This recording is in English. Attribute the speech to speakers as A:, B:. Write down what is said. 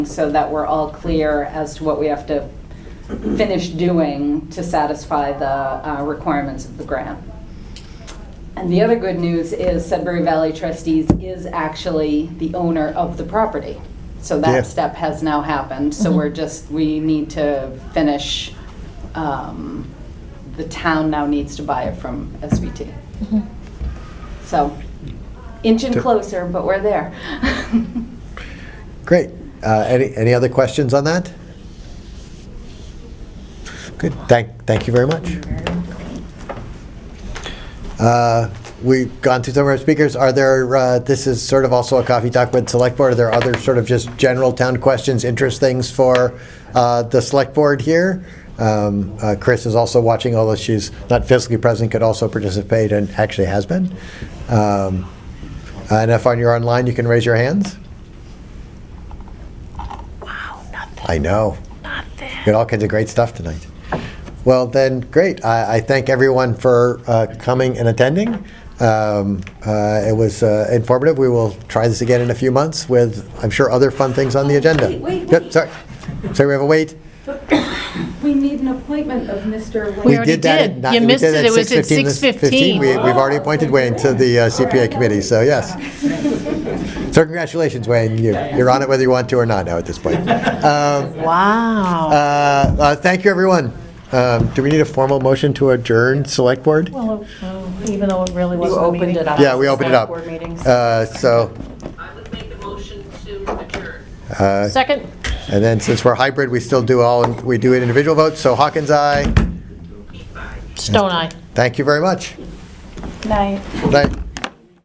A: so that we're all clear as to what we have to finish doing to satisfy the uh, requirements of the grant. And the other good news is Sudbury Valley Trustees is actually the owner of the property. So
B: Yeah.
A: that step has now happened, so we're just, we need to finish, um, the town now needs to buy it from SVT. So, inching
B: Did-
A: closer, but we're there.
B: Great. Uh, Any, any other questions on that? Good. Thank, thank you very much. Uh, We've gone through some of our speakers. Are there, uh, this is sort of also a coffee talk with Select Board. Are there other sort of just general town questions, interest things for uh, the Select Board here? Um, uh, Chris is also watching, although she's not physically present, could also participate and actually has been. Um, And if on you're online, you can raise your hands. I know. Got all kinds of great stuff tonight. Well, then, great. I, I thank everyone for uh, coming and attending. Um, uh, it was uh, informative. We will try this again in a few months with, I'm sure, other fun things on the agenda.
A: wait, wait,
B: Yep,
A: wait.
B: Sorry, sorry, we have a wait.
A: We need an appointment of Mr.
B: We
A: Wayne.
C: already
B: did that at
C: did.
B: ni-
C: You
B: we
C: missed
B: did
C: it. It was at
B: 6:15 this-
C: 6:15.
B: We, we've already appointed Wayne to the uh, CPA committee, so yes. So congratulations, Wayne. You, you're on it whether you want to or not now at this point. Um,
C: Wow.
B: Uh, uh, Thank you, everyone. Um, Do we need a formal motion to adjourn Select Board?
C: Well, uh, even though it really wasn't a meeting.
D: opened it up.
B: Yeah, we opened it up.
D: Board meetings.
B: Uh, So,
E: I would make a motion to adjourn.
B: uh,
C: Second?
B: and then since we're hybrid, we still do all, we do it individual votes, so Hawkins, aye.
C: Stone Eye.
B: Thank you very much.
D: Night.
B: Good night.